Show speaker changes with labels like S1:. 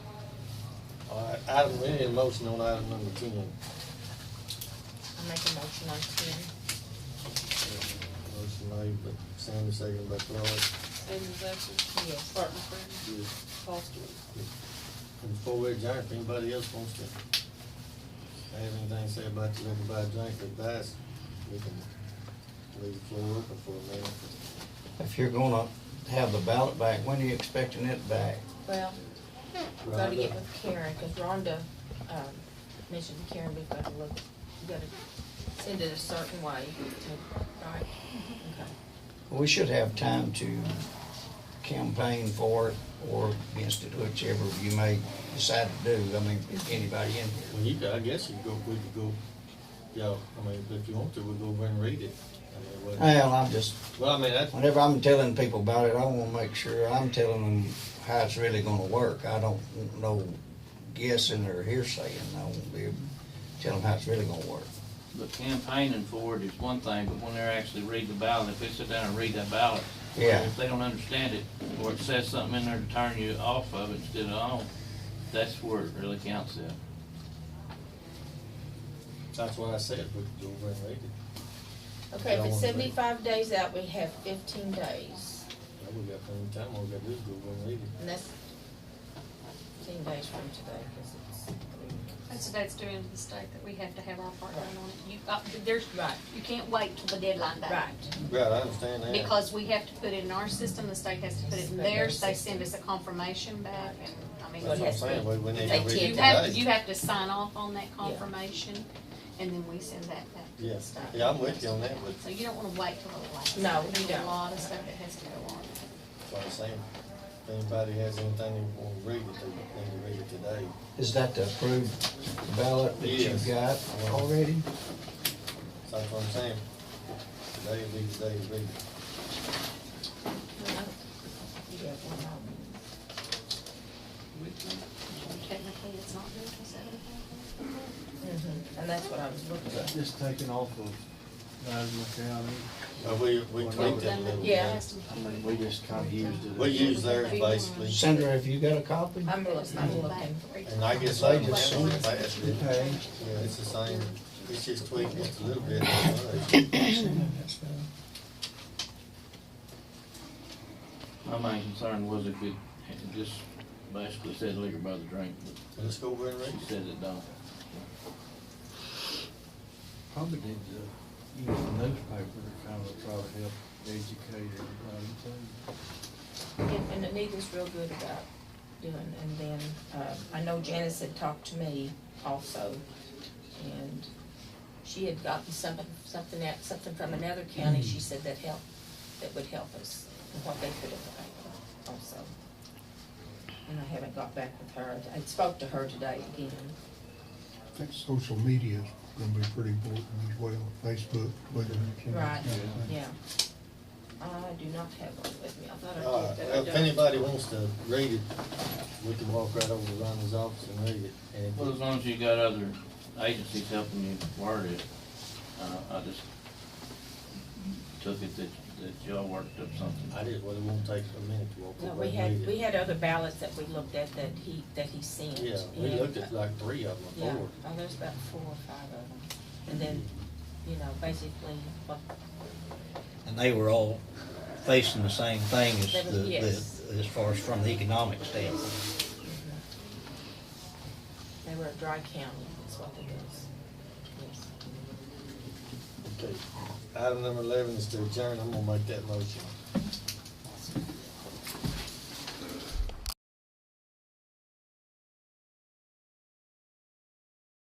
S1: Item, we need a motion on item number ten. Uh,
S2: I make a motion on ten.
S1: Motion made by Sammy, second by Floyd.
S3: Samuel's absent.
S2: Yes.
S3: Martin Freeman.
S1: Yes.
S3: Paul Stewart.
S1: And Before we adjourn, if anybody else wants to have anything to say about the liquor by drink advice, we can leave the floor open for a minute.
S4: If you're gonna have the ballot back, when are you expecting it back?
S2: Well, we gotta
S1: Rhonda?
S2: get with Karen, cause Rhonda, um, mentioned to Karen, we've gotta look, we gotta send it a certain way to, right? Okay.
S4: We should have time to campaign for it or against it, whichever you may decide to do. I mean, if anybody in here.
S1: Well, you, could- I guess you go, we could go, y'all, I mean, if you want to, we'll go over and read it. I mean, what-
S4: Well, I'm just,
S1: Well, I mean, that's,
S4: whenever I'm telling people about it, I wanna make sure I'm telling them how it's really gonna work. I don't want no guessing or hearsay, and I won't be able to tell them how it's really gonna work.
S5: But campaigning for it is one thing, but when they're actually reading the ballot, if they sit down and read that ballot,
S4: Yeah.
S5: if they don't understand it, or it says something in there to turn you off of it instead of on, that's where it really counts at.
S1: that's what I said, we could go over and read it.
S2: Okay, if
S1: Y'all wanna
S2: it's
S1: read it?
S2: seventy-five days out, we have fifteen days,
S1: Now, we got plenty of time, all we gotta do is go over and read it.
S2: and that's fifteen days from today, cause it's.
S6: That's the that's due into the state that we have to have our part done on it. You, uh, there's,
S2: Right.
S6: you can't wait till the deadline day.
S2: Right,
S1: Right, I understand that.
S6: Because we have to put it in our system, the state has to put it in
S2: It's in their
S6: theirs, they
S2: system.
S6: send us a confirmation back, and, I mean,
S1: That's what I'm
S2: Yes,
S1: saying, we, we need to
S2: they
S1: read it
S2: can't-
S6: You have,
S1: today.
S6: you have to sign off on that confirmation, and then we send that back to
S1: Yeah.
S6: the state.
S1: Yeah, I'm with you on that, but-
S6: So you don't wanna wait till the last.
S2: No,
S6: There's
S2: you don't.
S6: A lot of stuff that has to go on.
S1: That's what I'm saying. If anybody has anything they wanna read it, they need to read it today.
S4: Is that the approved ballot that you've got
S1: Yes.
S4: already?
S1: So That's what I'm saying. Today will be the day to read it.
S2: you have one more.
S6: Technically, it's not due till seven o'clock.
S2: Mhm, And that's what I was looking at.
S7: Just taken off of Madison County.
S1: Uh, we, we tweaked it a little
S2: Yeah.
S1: bit.
S7: I mean, we just kinda used it.
S1: We use theirs basically,
S4: Sandra, have you got a copy?
S2: I'm looking, I'm looking.
S1: and I guess they just went past it.
S7: Okay.
S1: Yeah, it's the same, it's just tweaked just a little bit. that's all.
S5: My main concern was if it, it just basically said liquor by the drink, but
S1: Let's go over and read
S5: it
S1: it.
S5: says it don't.
S7: Probably did the, use the newspaper to kind of probably help educate everybody too.
S2: And and Anita's real good about doing, and then, uh, I know Janice had talked to me also, and she had gotten something, something at, something from another county, she said that helped, that would help us, and what they could have done also. And I haven't got back with her, I spoke to her today again.
S8: I think social media is gonna be pretty important as well, Facebook, Twitter.
S2: Right, yeah. I do not have one with me, I thought I
S1: Uh,
S2: did, but I
S1: if
S2: don't.
S1: anybody wants to read it, we can walk right over to Ronnie's office and read it. And if-
S5: Well, as long as you got other agencies helping you word it, uh, I just took it that, that y'all worked up something.
S1: I did, well, it won't take a minute to walk
S2: No,
S1: over
S2: we
S1: and read
S2: had,
S1: it.
S2: we had other ballots that we looked at that he, that he sent.
S1: Yeah, we
S2: and-
S1: looked at like three of them
S2: Yeah,
S1: before.
S2: oh, there's about four or five of them. And then, you know, basically, what,
S9: And they were all facing the same thing as
S2: They were-
S9: the,
S2: yes.
S9: the, as far as from the economic standpoint.
S2: they were a dry county, is what it is. Yes.
S1: Okay. Item number eleven is to adjourn, I'm gonna make that motion.